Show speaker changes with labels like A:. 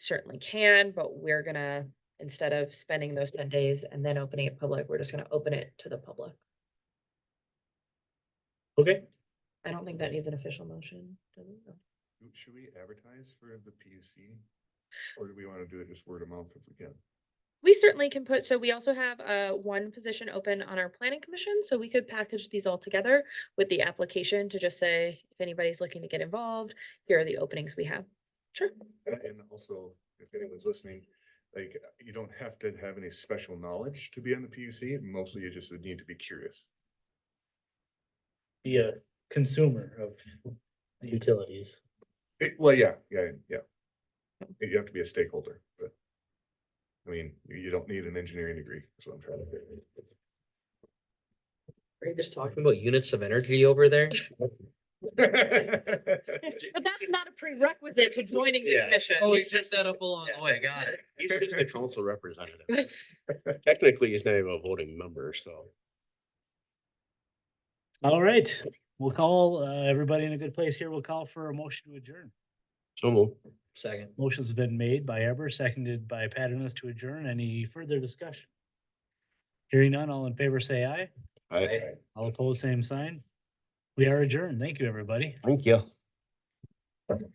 A: certainly can, but we're gonna, instead of spending those ten days and then opening it public, we're just gonna open it to the public.
B: Okay,
A: I don't think that needs an official motion. does it? No.
C: Should we advertise for the PUC? Or do we want to do it just word of mouth if we can?
A: We certainly can put, so we also have uh one position open on our planning commission, so we could package these all together with the application to just say, if anybody's looking to get involved, here are the openings we have. Sure.
C: And- And also, if anyone's listening, like, you don't have to have any special knowledge to be on the PUC, mostly you just would need to be curious.
B: be a consumer of the utilities.
C: It- Well, yeah, yeah, yeah. You have to be a stakeholder, but. I mean, you- you don't need an engineering degree, is what I'm trying to say.
D: Are you just talking about units of energy over there?
A: But that's not a prerequisite to joining
D: the Yeah.
A: commission.
D: Oh, it's just that up along the way, got it.
E: He's just the council representative. Technically, he's not even a voting member, so.
B: All right, we'll call, uh, everybody in a good place here. We'll call for a motion to adjourn.
E: So move.
D: Second.
B: Motion's been made by Eber, seconded by Paternoss to adjourn. Any further discussion? Hearing none, all in favor, say aye.
E: I,
B: All opposed, same sign. We are adjourned. Thank you, everybody.
E: thank you.